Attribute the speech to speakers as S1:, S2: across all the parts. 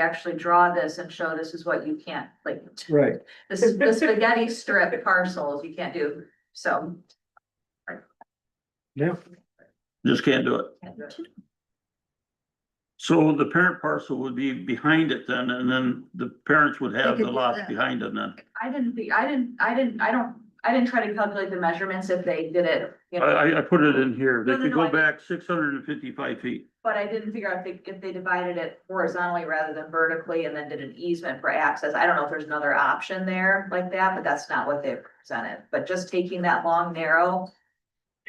S1: actually draw this and show this is what you can't, like,
S2: Right,
S1: this is the spaghetti strip parcels you can't do, so.
S2: yeah,
S3: Just can't do it.
S1: can't do it.
S3: So the parent parcel would be behind it then, and then the parents would have
S4: could
S3: the
S4: do
S3: lots
S4: that.
S3: behind it then.
S1: I didn't think, I didn't, I didn't, I don't, I didn't try to calculate the measurements if they did it, you
S3: I,
S1: know,
S3: I, I put it in here. They
S1: No, no,
S3: could
S1: no,
S3: go
S1: I-
S3: back six hundred and fifty-five feet.
S1: but I didn't figure out if they, if they divided it horizontally rather than vertically and then did an easement for access. I don't know if there's another option there like that, but that's not what they presented. But just taking that long, narrow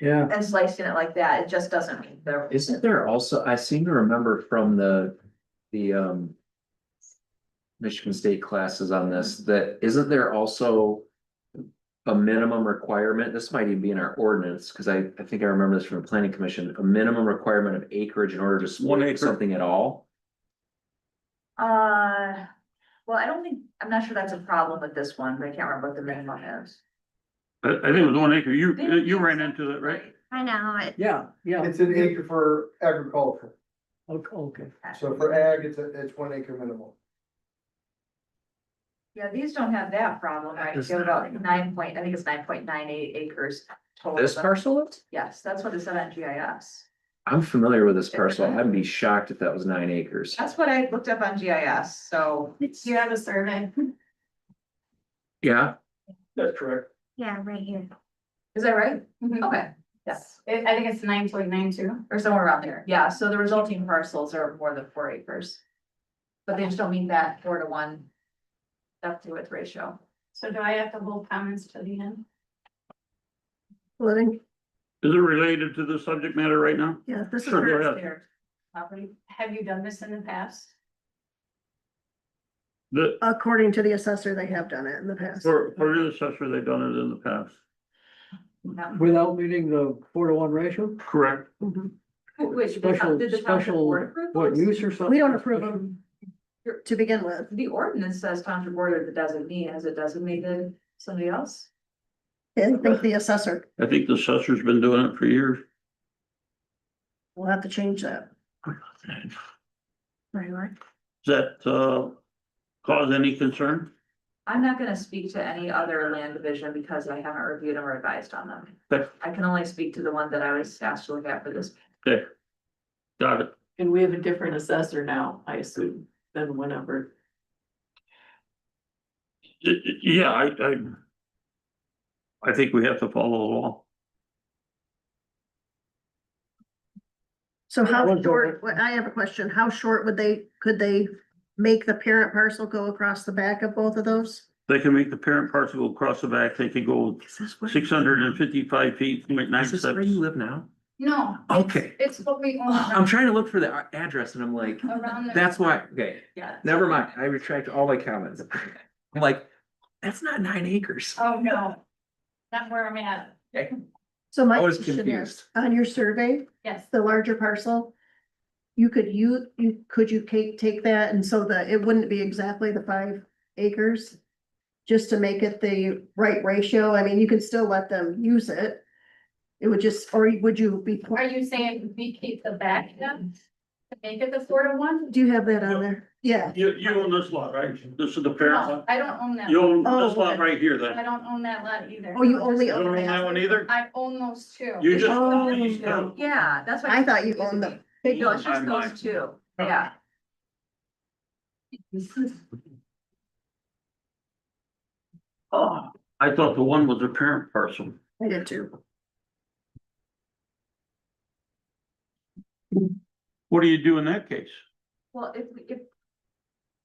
S2: yeah.
S1: and slicing it like that, it just doesn't meet the.
S5: Isn't there also, I seem to remember from the, the, um. Michigan State classes on this, that isn't there also? A minimum requirement, this might even be in our ordinance, because I, I think I remember this from the planning commission, a minimum requirement of acreage in order to
S3: One acre.
S5: split something at all?
S1: Uh, well, I don't think, I'm not sure that's a problem with this one, but I can't remember what the minimum is.
S3: I, I think it was one acre. You, uh, you ran into that, right?
S4: I know, it,
S2: Yeah, yeah,
S6: It's an acre for agriculture,
S2: okay, okay.
S6: so for ag, it's, a- it's one acre minimum.
S1: Yeah, these don't have that problem, right?
S3: Does
S1: They have
S3: not.
S1: about nine point, I think it's nine point nine eight acres total.
S5: This parcel?
S1: Yes, that's what it said on GIS.
S5: I'm familiar with this parcel, I'd be shocked if that was nine acres.
S1: That's what I looked up on GIS, so.
S4: it's, yeah,
S1: have a survey?
S5: Yeah,
S6: That's correct.
S4: right here.
S1: Is that right?
S7: Mhm.
S1: Okay, yes,
S7: It- I think it's nine point nine two.
S1: or somewhere around there. Yeah, so the resulting parcels are more than four acres. But they just don't meet that four to one. Up to its ratio.
S7: So do I have to hold comments to the end?
S4: Well, then,
S3: Is it related to the subject matter right now?
S4: yeah, this is,
S3: Sure, go ahead.
S1: There. Property.
S7: Have you done this in the past?
S3: The,
S4: according to the assessor, they have done it in the past.
S3: for, for the assessor, they've done it in the past.
S1: No.
S2: Without meeting the four to one ratio?
S3: Correct.
S4: Mhm.
S1: Which, did the town-
S2: Special,
S1: did the township
S2: special,
S1: board approve
S2: what,
S1: those?
S2: use or something?
S4: We don't approve them to begin with.
S1: The ordinance says township board or the designee, has it designated somebody else?
S4: I think the assessor
S3: I think the assessor's been doing it for years.
S4: will have to change that. Right, right.
S3: Does that, uh, cause any concern?
S1: I'm not gonna speak to any other land division because I haven't reviewed or advised on them.
S3: Okay.
S1: I can only speak to the one that I was asked to look at for this.
S3: Got it.
S8: And we have a different assessor now, I assume, than whenever.
S3: Y- y- Yeah, I, I. I think we have to follow the law.
S4: So how
S2: One
S4: short, well, I have a question. How short would they, could they make the parent parcel go across the back of both of those?
S3: They can make the parent parcel go across the back. They could go
S4: Is this where-
S3: six hundred and fifty-five feet, point nine
S5: is this where you
S3: steps.
S5: live now?
S7: No.
S5: Okay,
S7: It's what we own
S3: Um,
S5: I'm trying to look for the a- address and I'm like,
S7: around. the-
S5: that's why, okay.
S1: Yeah.
S5: Never mind, I retract all my comments. I'm like, that's not nine acres.
S7: Oh, no. Not where I'm at.
S4: So my
S5: I was
S4: question is,
S5: confused.
S4: on your survey,
S7: Yes.
S4: the larger parcel, you could you, you, could you take, take that and so that it wouldn't be exactly the five acres? Just to make it the right ratio. I mean, you can still let them use it. It would just, or would you be,
S7: Are you saying we keep the back then? To make it the four to one?
S4: do you have that on there? Yeah,
S3: You, you own this lot, right? This is the parent
S7: No,
S3: lot?
S7: I don't own that.
S3: You own
S4: Oh,
S3: this lot
S4: okay.
S3: right here then?
S7: I don't own that lot either.
S4: Oh, you only
S3: You
S4: own
S3: don't own that one either?
S7: I own those two.
S3: You just.
S4: Oh.
S3: these two.
S1: Yeah, that's why.
S4: I thought you owned the big
S1: No, it's
S4: one.
S1: just
S3: Timeline.
S1: those two, yeah.
S3: Oh, I thought the one was the parent parcel.
S4: I did too.
S3: What do you do in that case?
S1: Well, if, if.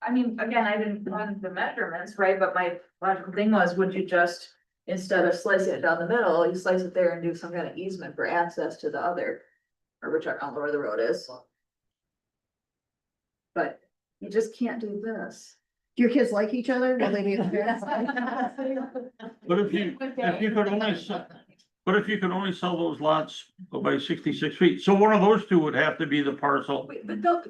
S1: I mean, again, I didn't run the measurements, right, but my logical thing was, would you just, instead of slicing it down the middle, you slice it there and do some kind of easement for access to the other. Or which I don't know where the road is. But you just can't do this.
S4: Do your kids like each other? Will they be?
S3: But if you, if you could only, se- but if you could only sell those lots by sixty-six feet, so one of those two would have to be the parcel.
S1: Wait, But don't.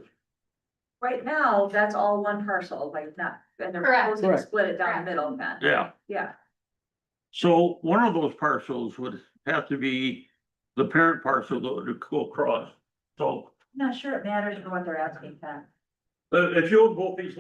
S1: Right now, that's all one parcel, like not, and they're
S7: Correct.
S1: proposing to
S2: Correct.
S1: split it down the middle then,
S3: Yeah,
S1: yeah.
S3: so one of those parcels would have to be the parent parcel that would go across. So
S1: Not sure it matters for what they're asking, Pat.
S3: But uh, if you hold both these